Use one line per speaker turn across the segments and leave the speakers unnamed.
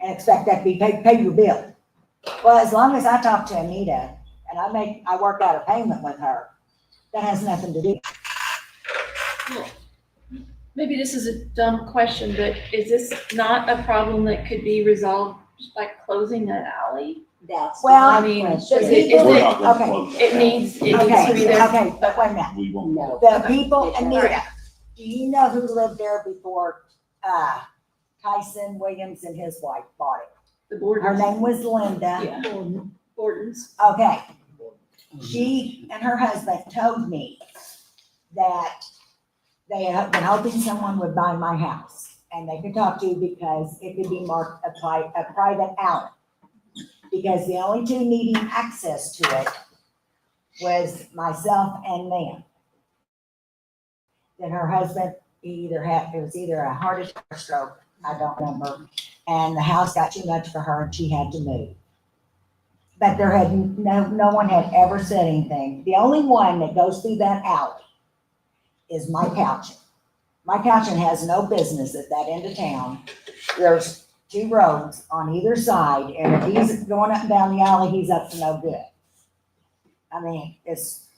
and expect that to be paid, pay your bill. Well, as long as I talk to Anita and I make, I work out a payment with her, that has nothing to do.
Maybe this is a dumb question, but is this not a problem that could be resolved just by closing that alley?
That's
Well,
my
I mean, does
question.
it, is
We're
it,
not gonna
okay,
close that
it
down.
needs, it needs to be
Okay,
there.
okay, but wait a minute.
We won't.
No,
The people,
Okay.
Anita, do you know who lived there before, uh, Tyson Williams and his wife bought it?
The
Her
Bordens,
name was Linda.
yeah, Bordens.
Okay. She and her husband told me that they had been hoping someone would buy my house and they could talk to because it could be marked a pri- a private alley. Because the only two needing access to it was myself and Nan. Then her husband, he either had, it was either a heart attack or stroke, I don't remember. And the house got too much for her and she had to move. But there had, no, no one had ever said anything. The only one that goes through that alley is Mike Houchin. Mike Houchin has no business at that end of town. There's two roads on either side, and if he's going up and down the alley, he's up to no good. I mean, it's,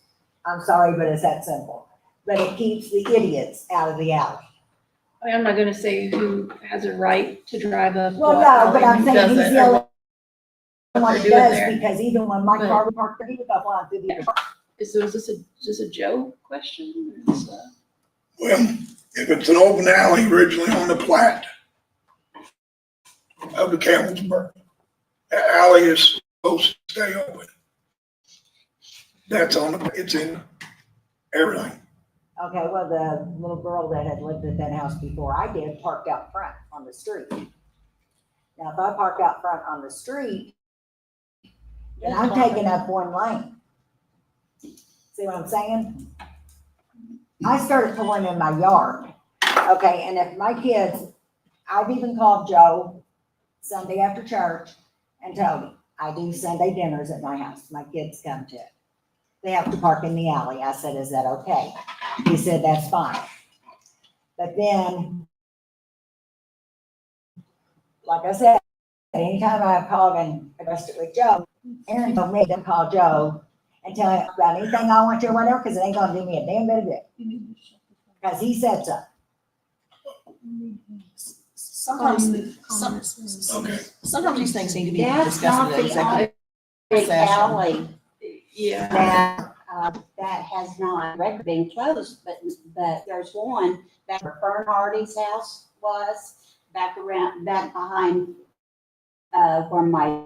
I'm sorry, but it's that simple. But it keeps the idiots out of the alley.
I mean, I'm not gonna say who has a right to drive up.
Well,
what
no, but
alley,
I'm
who
saying he's
doesn't,
the
or
only
what
one that
they're doing
does,
there.
because even when my car was parked, there, he would go flying through the
Is, was this a, just a Joe question? or is, uh,
Well, if it's an open alley originally on the plat of the Campbellsburg, that alley is supposed to stay open. That's on, the. it's in everything.
Okay, well, the little girl that had lived at that house before I did parked out front on the street. Now, if I park out front on the street, then I'm taking up one lane. See what I'm saying? I started pulling in my yard, okay, and if my kids, I've even called Joe Sunday after church and told him, I do Sunday dinners at my house, my kids come to it. They have to park in the alley, I said, is that okay? He said, that's fine. But then, like I said, anytime I called and addressed it with Joe, Aaron told me to call Joe and tell him about anything I want to or whatever, because it ain't gonna do me a damn bit of good. Because he said so.
Sometimes, the- some,
Okay.
sometimes these things need to be
That's
discussed
not
in
the
executive.
only
session.
alley
Yeah.
that, uh, that has not record being closed, but, but there's one back where Fern Hardy's house was, back around, back behind, uh, where my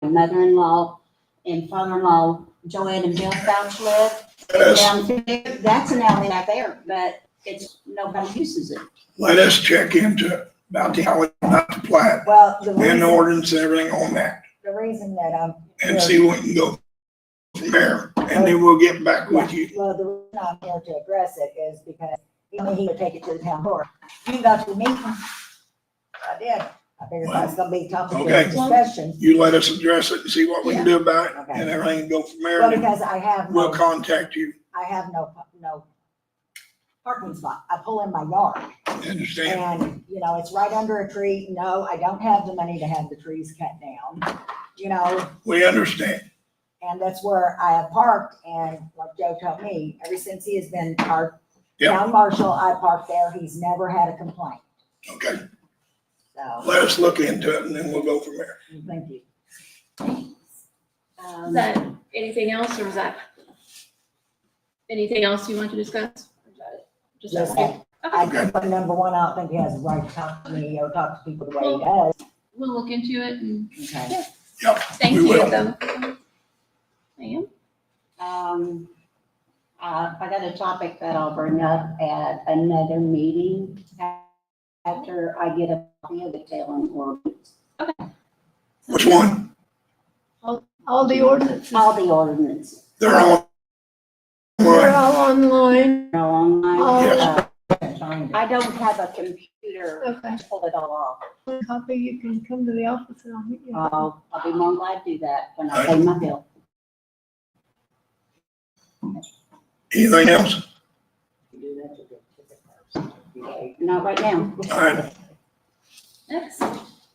mother-in-law and father-in-law, Joanne and Bill Fouch lived.
Let's,
Down there, That's an alley back there, but it's, nobody uses it.
let us check into about the alley, not the plat,
Well, the
and the
reason,
ordinance and everything on that,
the reason that I'm
and see what we can go from there, and then we'll get back with you.
Well, the reason I'm here to address it is because he told me he would take it to the town board. You can go to the meeting. I did. I figured that's gonna be a topic of
Okay.
discussion.
You let us address it and see what we can do about it, and everything can go from there,
Well,
and
because I have
we'll
no,
contact you,
I have no, no parking spot. I pull in my yard
understand?
and, you know, it's right under a tree. No, I don't have the money to have the trees cut down. You know,
We understand.
and that's where I have parked and like Joe told me, ever since he has been our
Yeah.
town marshal, I parked there. He's never had a complaint,
Okay,
so.
let us look into it and then we'll go from there.
Thank you.
Is
Um,
that anything else or is that anything else you want to discuss? Or is that it? Just
Just
asking.
that, I think for number one, I don't think he has a right to talk to me or talk to people the way he does.
We'll look into it and
Okay.
thank
We
you
will.
though. Ma'am?
Um, uh, I got a topic that I'll bring up at another meeting a- after I get a copy of the tail and ordinance,
Which one?
All the ordinances
all the ordinances.
They're all.
are
Right,
all online.
are online.
Oh.
Yes.
Uh, I don't have a computer
Okay.
to pull it all off.
Copy, you can come to the office and I'll meet you.
I'll, I'll be more glad to do that when I pay my bill.
anything else?
Not right now.
All right,
Next.